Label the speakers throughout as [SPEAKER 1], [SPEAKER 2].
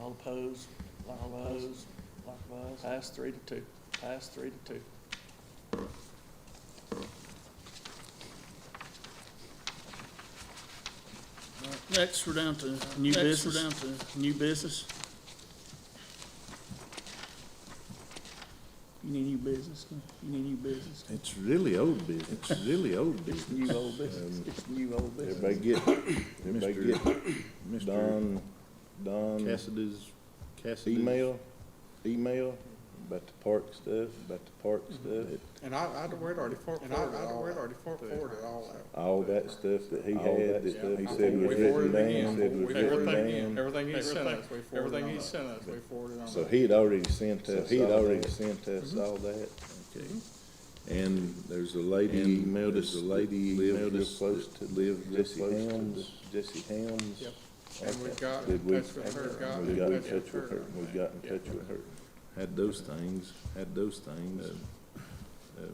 [SPEAKER 1] All opposed, likewise, likewise, pass three to two, pass three to two.
[SPEAKER 2] Next, we're down to new business. We're down to new business. You need new business, huh? you need new business.
[SPEAKER 3] It's really old business, it's really old
[SPEAKER 2] It's
[SPEAKER 3] business.
[SPEAKER 2] new old business, it's new old
[SPEAKER 4] Everybody
[SPEAKER 2] business.
[SPEAKER 4] get, everybody get
[SPEAKER 3] Mr.
[SPEAKER 4] Don, Don
[SPEAKER 3] Cassidy's, Cassidy's.
[SPEAKER 4] email, email about the park stuff, about the park stuff,
[SPEAKER 5] And I, I'd wear it already for, and I, I'd wear it already for, forwarded all that.
[SPEAKER 4] all that stuff that he
[SPEAKER 3] All
[SPEAKER 4] had,
[SPEAKER 3] that
[SPEAKER 4] that he
[SPEAKER 5] I
[SPEAKER 4] said
[SPEAKER 5] forwarded
[SPEAKER 4] was
[SPEAKER 5] it
[SPEAKER 4] written
[SPEAKER 5] again.
[SPEAKER 4] down, said was
[SPEAKER 5] We-
[SPEAKER 4] written
[SPEAKER 5] Everything,
[SPEAKER 4] down.
[SPEAKER 5] everything he sent us, we forwarded
[SPEAKER 1] everything
[SPEAKER 5] on
[SPEAKER 1] he
[SPEAKER 5] that.
[SPEAKER 1] sent us,
[SPEAKER 5] we forwarded on
[SPEAKER 4] So
[SPEAKER 5] that.
[SPEAKER 4] he had already sent
[SPEAKER 3] So
[SPEAKER 4] us, he had
[SPEAKER 3] all
[SPEAKER 4] already
[SPEAKER 3] that.
[SPEAKER 4] sent us all that.
[SPEAKER 3] Okay.
[SPEAKER 4] And there's a lady,
[SPEAKER 3] emailed
[SPEAKER 4] there's
[SPEAKER 3] us that
[SPEAKER 4] a lady
[SPEAKER 3] lives
[SPEAKER 4] emailed
[SPEAKER 3] real
[SPEAKER 4] us close to, live real
[SPEAKER 3] Jesse
[SPEAKER 4] close to
[SPEAKER 3] Helms.
[SPEAKER 4] Jesse Helms.
[SPEAKER 5] Yep. And we got in
[SPEAKER 4] Did we,
[SPEAKER 5] touch with her, got
[SPEAKER 4] we
[SPEAKER 5] in
[SPEAKER 4] got in
[SPEAKER 5] touch with her.
[SPEAKER 4] and we got in touch with her.
[SPEAKER 3] Had those things, had those things.
[SPEAKER 4] Um,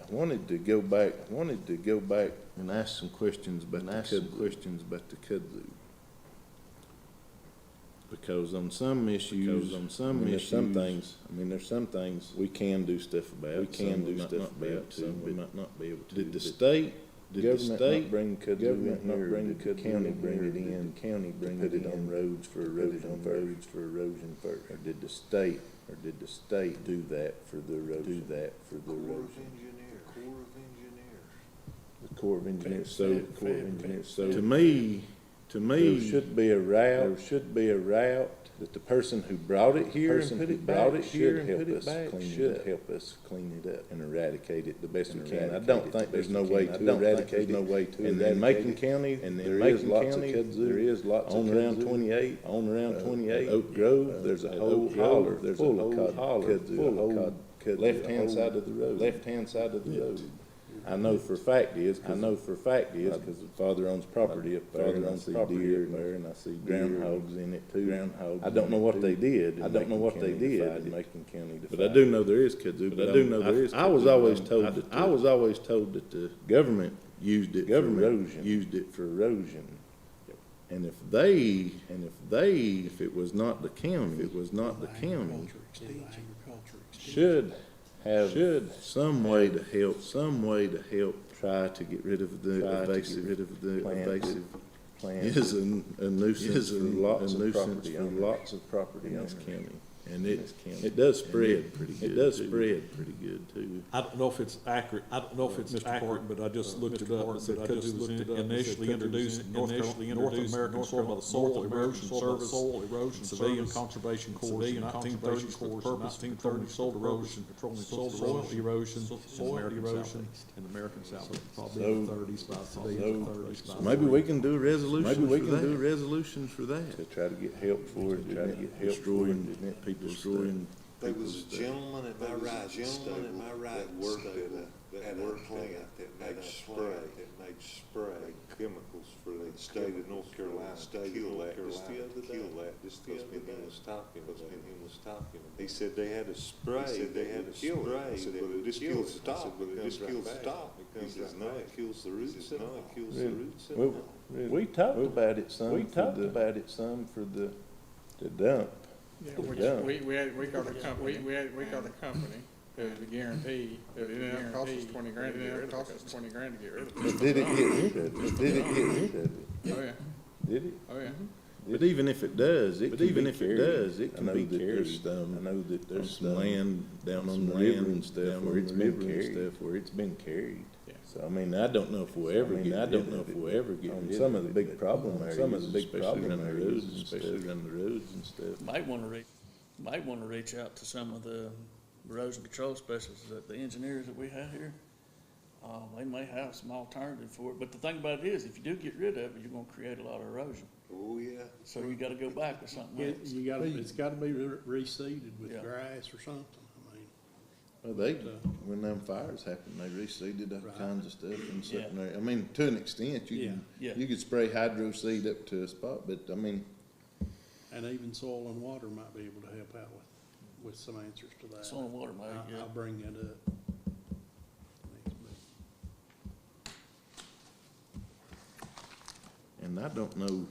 [SPEAKER 4] I wanted to go back, I wanted to go back and ask some questions about
[SPEAKER 3] And
[SPEAKER 4] the
[SPEAKER 3] ask some
[SPEAKER 4] Kudlow. Questions about the Kudlow. Because on some issues,
[SPEAKER 3] Because
[SPEAKER 4] on
[SPEAKER 3] on
[SPEAKER 4] some
[SPEAKER 3] some
[SPEAKER 4] issues, some
[SPEAKER 3] issues-
[SPEAKER 4] things, I mean, there's some things we can do stuff about. We
[SPEAKER 3] some
[SPEAKER 4] can
[SPEAKER 3] we
[SPEAKER 4] do
[SPEAKER 3] might
[SPEAKER 4] stuff
[SPEAKER 3] not be able
[SPEAKER 4] about,
[SPEAKER 3] to,
[SPEAKER 4] some we
[SPEAKER 3] but
[SPEAKER 4] might not be able to.
[SPEAKER 3] did the
[SPEAKER 4] but
[SPEAKER 3] state
[SPEAKER 4] Did the
[SPEAKER 3] government not
[SPEAKER 4] state bring Kudlow
[SPEAKER 3] government
[SPEAKER 4] in
[SPEAKER 3] not
[SPEAKER 4] here?
[SPEAKER 3] bring
[SPEAKER 4] Did the
[SPEAKER 3] Kudlow
[SPEAKER 4] county
[SPEAKER 3] in
[SPEAKER 4] bring
[SPEAKER 3] here?
[SPEAKER 4] it
[SPEAKER 3] Did
[SPEAKER 4] in?
[SPEAKER 3] the
[SPEAKER 4] County bring
[SPEAKER 3] put
[SPEAKER 4] it
[SPEAKER 3] it
[SPEAKER 4] on
[SPEAKER 3] on
[SPEAKER 4] roads for erosion, roads for erosion first? Or did the state, or did the state do that for the erosion? Do that for the erosion?
[SPEAKER 6] Engineer, Corps of Engineers.
[SPEAKER 4] The Corps of Engineers, so,
[SPEAKER 3] Fair,
[SPEAKER 4] Corps of
[SPEAKER 3] fair,
[SPEAKER 4] Engineers, so.
[SPEAKER 3] fair. To me, to
[SPEAKER 4] There
[SPEAKER 3] me,
[SPEAKER 4] should be a route, there should be a route that the person who brought it here and put it back, should help us clean it up. Help us clean it up and eradicate it the best we can. I don't think there's no way to eradicate it. No way to And in Macon County, and in Macon County, there is lots of kudzu. On around twenty-eight, on around twenty-eight. Oak Grove, there's uh, a whole holler, there's a whole holler, full of kudzu. Left-hand side of the road. Left-hand side of the road. I know for a fact is, I know for a fact is, because father owns property up there, and I see deer up there, and I see groundhogs in it too. Groundhogs. I don't know what they did. I don't know what they did in Macon County.
[SPEAKER 3] but I do know there is kudzu, but I do know
[SPEAKER 4] don't-
[SPEAKER 3] there is.
[SPEAKER 4] um, I was
[SPEAKER 3] kudzu,
[SPEAKER 4] always
[SPEAKER 3] but
[SPEAKER 4] told
[SPEAKER 3] I-
[SPEAKER 4] that
[SPEAKER 3] I
[SPEAKER 4] the-
[SPEAKER 3] was always told that the
[SPEAKER 4] Government
[SPEAKER 3] used it for
[SPEAKER 4] Government
[SPEAKER 3] erosion.
[SPEAKER 4] used it for erosion.
[SPEAKER 3] And if they, and if they, if it was not the county, if it was not the county,
[SPEAKER 6] Agriculture extension. Agriculture extension.
[SPEAKER 4] Should have.
[SPEAKER 3] should some way to help, some way to help try to get rid of the
[SPEAKER 4] Try to get
[SPEAKER 3] evasive, rid of the
[SPEAKER 4] planted,
[SPEAKER 3] evasive.
[SPEAKER 4] planted,
[SPEAKER 3] Is a a nuisance,
[SPEAKER 4] Is
[SPEAKER 3] for
[SPEAKER 4] a
[SPEAKER 3] lots
[SPEAKER 4] nuisance
[SPEAKER 3] of property,
[SPEAKER 4] for
[SPEAKER 3] owners
[SPEAKER 4] lots of property
[SPEAKER 3] in this
[SPEAKER 4] owners.
[SPEAKER 3] county. And it,
[SPEAKER 4] county.
[SPEAKER 3] it does spread pretty good. It does
[SPEAKER 4] too.
[SPEAKER 3] spread pretty good too.
[SPEAKER 7] I don't know if it's accurate, I don't know if it's accurate, but I just looked it up, it uh, said I just looked it up. Initially introduced in North Carolina, North American Soil by the Soil Erosion Service. Soil Erosion Civilian Conservation Corps, nineteen thirty Corps, nineteen thirty Soil Erosion, Patrolling Soil Erosion, Soil Erosion in the American South, probably in the thirties by civilians, thirties by.
[SPEAKER 3] Maybe we can do a resolution
[SPEAKER 4] Maybe we
[SPEAKER 3] for
[SPEAKER 4] can
[SPEAKER 3] that.
[SPEAKER 4] do
[SPEAKER 3] resolution for that.
[SPEAKER 4] To try to get help for it, to try to get help for it.
[SPEAKER 3] Destroying,
[SPEAKER 4] didn't it?
[SPEAKER 3] people destroying
[SPEAKER 6] There was a gentleman at my
[SPEAKER 8] There was a
[SPEAKER 6] right, gentleman at
[SPEAKER 8] gentleman
[SPEAKER 6] my
[SPEAKER 8] that
[SPEAKER 6] right
[SPEAKER 8] worked
[SPEAKER 6] stable
[SPEAKER 8] at a-
[SPEAKER 6] at
[SPEAKER 8] that
[SPEAKER 6] a
[SPEAKER 8] worked
[SPEAKER 6] plant
[SPEAKER 8] at a-
[SPEAKER 6] that
[SPEAKER 8] at
[SPEAKER 6] made
[SPEAKER 8] a
[SPEAKER 6] spray,
[SPEAKER 8] plant
[SPEAKER 6] that made
[SPEAKER 8] spray
[SPEAKER 6] spray.
[SPEAKER 8] chemicals for the state of North Carolina,
[SPEAKER 6] State of
[SPEAKER 8] kill
[SPEAKER 6] North
[SPEAKER 8] that, just the
[SPEAKER 6] Carolina,
[SPEAKER 8] other day.
[SPEAKER 6] kill that, just the
[SPEAKER 8] Because
[SPEAKER 6] other
[SPEAKER 8] me and him
[SPEAKER 6] day.
[SPEAKER 8] was talking
[SPEAKER 6] Because me
[SPEAKER 8] about
[SPEAKER 6] and
[SPEAKER 8] it.
[SPEAKER 6] him was talking about
[SPEAKER 8] He
[SPEAKER 6] it.
[SPEAKER 8] said they had a spray.
[SPEAKER 6] said they had a
[SPEAKER 8] would kill it. I
[SPEAKER 6] spray
[SPEAKER 8] said,
[SPEAKER 6] that
[SPEAKER 8] well,
[SPEAKER 6] would
[SPEAKER 8] this
[SPEAKER 6] kill
[SPEAKER 8] kills
[SPEAKER 6] it. I
[SPEAKER 8] the
[SPEAKER 6] said, well,
[SPEAKER 8] top,
[SPEAKER 6] it
[SPEAKER 8] but this
[SPEAKER 6] comes
[SPEAKER 8] kills
[SPEAKER 6] right
[SPEAKER 8] the
[SPEAKER 6] back.
[SPEAKER 8] top.
[SPEAKER 6] It
[SPEAKER 8] He
[SPEAKER 6] comes
[SPEAKER 8] says,
[SPEAKER 6] right
[SPEAKER 8] no,
[SPEAKER 6] back.
[SPEAKER 8] it kills the
[SPEAKER 6] He
[SPEAKER 8] roots
[SPEAKER 6] says,
[SPEAKER 8] and
[SPEAKER 6] no,
[SPEAKER 8] all.
[SPEAKER 6] it kills
[SPEAKER 4] Really?
[SPEAKER 6] the roots and
[SPEAKER 4] We-
[SPEAKER 6] all.
[SPEAKER 4] We talked about it some.
[SPEAKER 3] we
[SPEAKER 4] for
[SPEAKER 3] talked
[SPEAKER 4] the- About it some for the, the dump.
[SPEAKER 5] Yeah,
[SPEAKER 4] Yeah.
[SPEAKER 5] which, we, we had, we got a company, we had, we got a company, that was a guarantee, that it didn't cost us twenty grand to get rid of it. cost us twenty grand to get rid of it.
[SPEAKER 4] But did it get rid of it? Did it get rid of it?
[SPEAKER 5] Oh, yeah,
[SPEAKER 4] Did it?
[SPEAKER 5] oh, yeah.
[SPEAKER 3] But even if it does, it
[SPEAKER 4] But
[SPEAKER 3] can
[SPEAKER 4] even
[SPEAKER 3] be
[SPEAKER 4] if it
[SPEAKER 3] carried.
[SPEAKER 4] does, it
[SPEAKER 3] I
[SPEAKER 4] can
[SPEAKER 3] know
[SPEAKER 4] be
[SPEAKER 3] that there's
[SPEAKER 4] carried.
[SPEAKER 3] some-
[SPEAKER 4] I know that
[SPEAKER 3] There's
[SPEAKER 4] there's
[SPEAKER 3] some land down on
[SPEAKER 4] some
[SPEAKER 3] the
[SPEAKER 4] river
[SPEAKER 3] land
[SPEAKER 4] and stuff
[SPEAKER 3] down
[SPEAKER 4] where
[SPEAKER 3] on
[SPEAKER 4] it's
[SPEAKER 3] the
[SPEAKER 4] been
[SPEAKER 3] river and
[SPEAKER 4] carried.
[SPEAKER 3] stuff where it's been carried.
[SPEAKER 5] Yeah.
[SPEAKER 3] So I mean, I don't know if we'll ever
[SPEAKER 4] I mean,
[SPEAKER 3] get, I
[SPEAKER 4] I
[SPEAKER 3] don't
[SPEAKER 4] did
[SPEAKER 3] know if
[SPEAKER 4] have it,
[SPEAKER 3] we'll
[SPEAKER 4] but
[SPEAKER 3] ever get.
[SPEAKER 4] on
[SPEAKER 3] rid of
[SPEAKER 4] some of
[SPEAKER 3] it,
[SPEAKER 4] the big
[SPEAKER 3] but
[SPEAKER 4] problem
[SPEAKER 3] on Some of
[SPEAKER 4] areas,
[SPEAKER 3] the big
[SPEAKER 4] especially
[SPEAKER 3] problem
[SPEAKER 4] around the
[SPEAKER 3] areas,
[SPEAKER 4] roads and stuff.
[SPEAKER 3] especially around the roads and stuff.
[SPEAKER 1] Might wanna reach, might wanna reach out to some of the erosion control specialists, that the engineers that we have here. Uh, they may have some alternative for it, but the thing about it is, if you do get rid of it, you're gonna create a lot of erosion,
[SPEAKER 8] Oh, yeah.
[SPEAKER 1] so you gotta go back with something
[SPEAKER 9] It,
[SPEAKER 1] else.
[SPEAKER 9] you gotta, it's gotta be re- reseeded with
[SPEAKER 1] Yeah.
[SPEAKER 9] grass or something, I mean.
[SPEAKER 3] Well, they, when them fires happened, they reseeded all
[SPEAKER 9] Right.
[SPEAKER 3] kinds of stuff in
[SPEAKER 1] Yeah.
[SPEAKER 3] secondary, I mean, to an extent, you can,
[SPEAKER 1] Yeah. Yeah.
[SPEAKER 3] you could spray hydro seed up to a spot, but I mean,
[SPEAKER 9] And even soil and water might be able to help out with, with some answers to that.
[SPEAKER 1] Soil and water might,
[SPEAKER 9] I-
[SPEAKER 1] yeah.
[SPEAKER 9] I'll bring that up. Next meeting.
[SPEAKER 3] and I don't know,